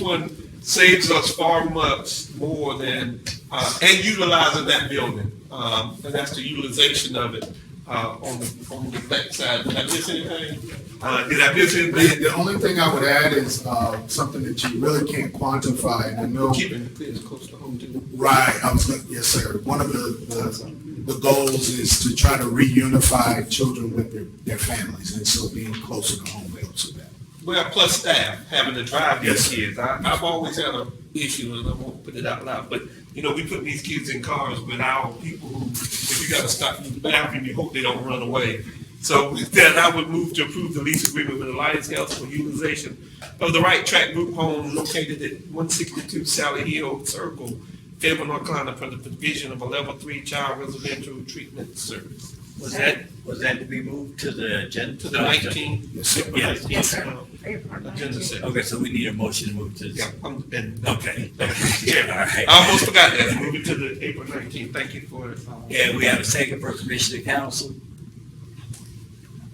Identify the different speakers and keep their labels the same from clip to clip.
Speaker 1: one saves us far much more than, uh, and utilizing that building. Um, and that's the utilization of it, uh, on the, on the backside. Did I miss anything? Uh, did I miss
Speaker 2: The,
Speaker 1: anything?
Speaker 2: the only thing I would add is, uh, something that you really can't quantify, and I know.
Speaker 1: Keeping the kids close to home too.
Speaker 2: Right, I was gonna, yes, sir. One of the, the, the goals is to try to reunify children with their, their families, and so being closer to home helps with that.
Speaker 1: Well, plus staff, having to drive these
Speaker 2: Yes.
Speaker 1: kids. I, I've always had an issue, and I won't put it out loud, but, you know, we put these kids in cars, but our people who, if you gotta stop in the bathroom, you hope they don't run away. So with that, I would move to approve the lease agreement with Alliance Health for utilization of the right track group home located at one sixty-two Sally Hill Circle, Fayetteville, North Carolina, for the provision of a level three child residential treatment service. Was that
Speaker 3: was that to be moved to the agenda?
Speaker 1: to the nineteen? uh,
Speaker 2: Yes, sir.
Speaker 3: Yes, yes, sir.
Speaker 1: Agenda set.
Speaker 3: Okay, so we need a motion to move to.
Speaker 1: Yeah, I'm, and
Speaker 3: Okay.
Speaker 1: Yeah,
Speaker 3: All right.
Speaker 1: I almost forgot that, moving to the April nineteenth, thank you for. um, it.
Speaker 3: Yeah, we have a second for Commissioner Council.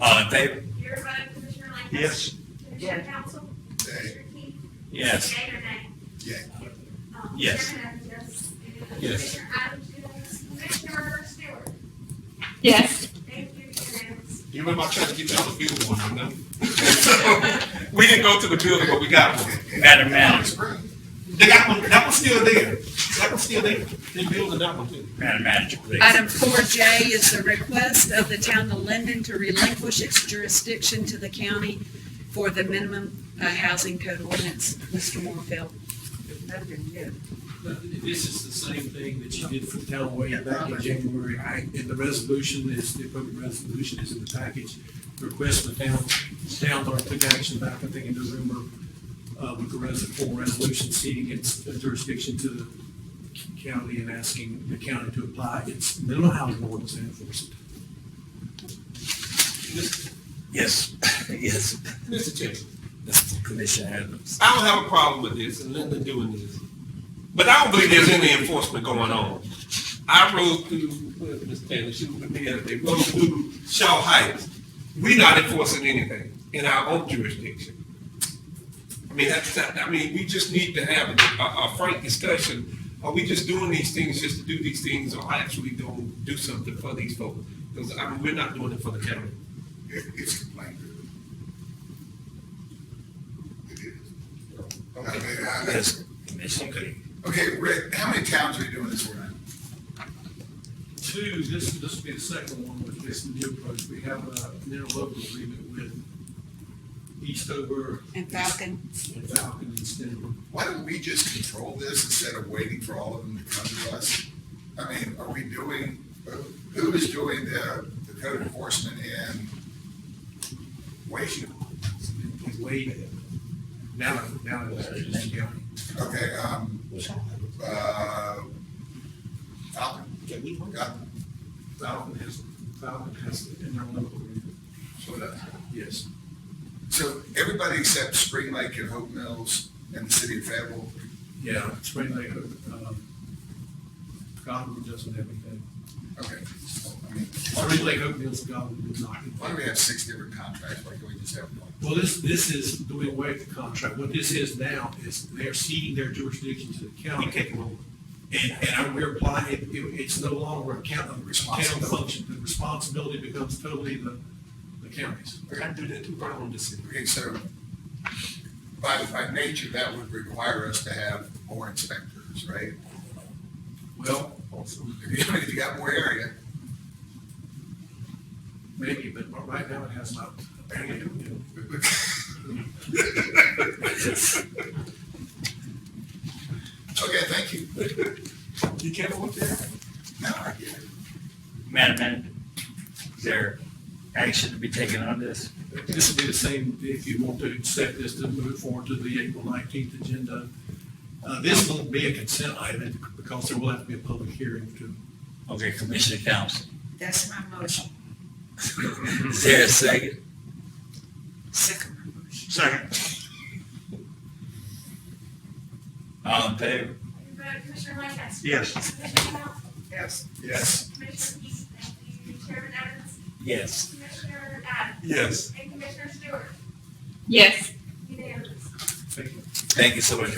Speaker 3: All in favor?
Speaker 4: Your vote, Commissioner Lancaster?
Speaker 1: Yes.
Speaker 4: Commissioner Council? Commissioner Key?
Speaker 3: Yes.
Speaker 4: Yea or nay?
Speaker 2: Yeah.
Speaker 4: Um,
Speaker 3: Yes.
Speaker 4: Chairman has yes. And
Speaker 1: Yes.
Speaker 4: Commissioner Adams, yes. Commissioner Stewart?
Speaker 5: Yes.
Speaker 4: Thank you, unanimous.
Speaker 1: You remember I tried to get you on the field one, you know? We didn't go to the building, but we got one.
Speaker 3: Madam Manager,
Speaker 1: They got one, that one's still there, that one's still there, they building that one too.
Speaker 3: Madam Manager, please.
Speaker 6: Item four J is the request of the town of Linden to relinquish its jurisdiction to the county for the minimum uh, housing code ordinance. Mr. Morfield.
Speaker 7: This is the same thing that you did for the town way back in January. And the resolution is, the appropriate resolution is in the package. Request the town, town clerk took action back, I think, in November, uh, with the res, full resolution ceding its jurisdiction to the county and asking the county to apply its minimum housing ordinance and enforce it.
Speaker 3: Yes, yes,
Speaker 1: Mr. Chairman.
Speaker 3: Commissioner Adams.
Speaker 1: I don't have a problem with this and Linda doing this. But I don't believe there's any enforcement going on. I rode through, where Ms. Taylor, she was with me, the other day, rode through Shaw Heights. We not enforcing anything in our own jurisdiction. I mean, that's, not- I mean, we just need to have a, a frank discussion. Are we just doing these things just to do these things or actually going to do something for these folks? Because I mean, we're not doing it for the county.
Speaker 8: It, it's complaint. It is. I mean, I-
Speaker 3: Yes, Commissioner.
Speaker 8: Okay, Rick, how many towns are you doing this for now?
Speaker 7: Two, this, this will be the second one with this new approach. We have a interlocal agreement with Eastover
Speaker 6: And Falcon.
Speaker 7: and Falcon and Stenham.
Speaker 8: Why don't we just control this instead of waiting for all of them to come to us? I mean, are we doing, who is doing the, the code enforcement and waiting?
Speaker 7: He's waiting. Now, now it's Anderson County.
Speaker 8: Okay, um, uh, Falcon,
Speaker 1: Can we work
Speaker 8: got,
Speaker 7: Falcon has, Falcon has it in their local agreement.
Speaker 8: so that-
Speaker 7: Yes.
Speaker 8: so everybody except Spring Lake and Hope Mills and the city of Fayetteville
Speaker 7: Yeah, Spring Lake, um, Godwin doesn't have anything.
Speaker 8: Okay. I mean, Why do
Speaker 7: Spring
Speaker 8: we,
Speaker 7: Lake Oakville's Godwin does not.
Speaker 8: why do we have six different contracts? Why can't we just have one?
Speaker 7: Well, this, this is doing away with the contract. What this is now is they're ceding their jurisdiction to the county.
Speaker 1: We take them over.
Speaker 7: And, and we're applying, it, it- it's no longer a count, a town function. The responsibility becomes totally the, the county's.
Speaker 1: I gotta do that too, but I don't just sit here.
Speaker 8: Okay, so by, by nature, that would require us to have more inspectors, right?
Speaker 7: Well,
Speaker 8: If you- if you got more area,
Speaker 7: maybe, but right now it has not.
Speaker 8: okay, thank you.
Speaker 1: You can't work there?
Speaker 8: No, I get it.
Speaker 3: Madam Manager, is there action to be taken on this?
Speaker 7: This would be the same, if you want to accept this, to move forward to the April nineteenth agenda. Uh, this will be a consent item because there will have to be a public hearing to.
Speaker 3: Okay, Commissioner Council.
Speaker 6: That's my motion.
Speaker 3: Is there a second?
Speaker 6: Second my motion.
Speaker 3: Second. All in favor?
Speaker 4: Your vote, Commissioner Lancaster?
Speaker 3: Yes.
Speaker 4: Commissioner Council?
Speaker 8: Yes. Yes.
Speaker 4: Commissioner Key? Thank you, Chairman Evans?
Speaker 3: Yes.
Speaker 4: Commissioner Adams?
Speaker 1: Yes.
Speaker 4: And Commissioner Stewart?
Speaker 5: Yes.
Speaker 4: Unanimous.
Speaker 3: Thank you so much.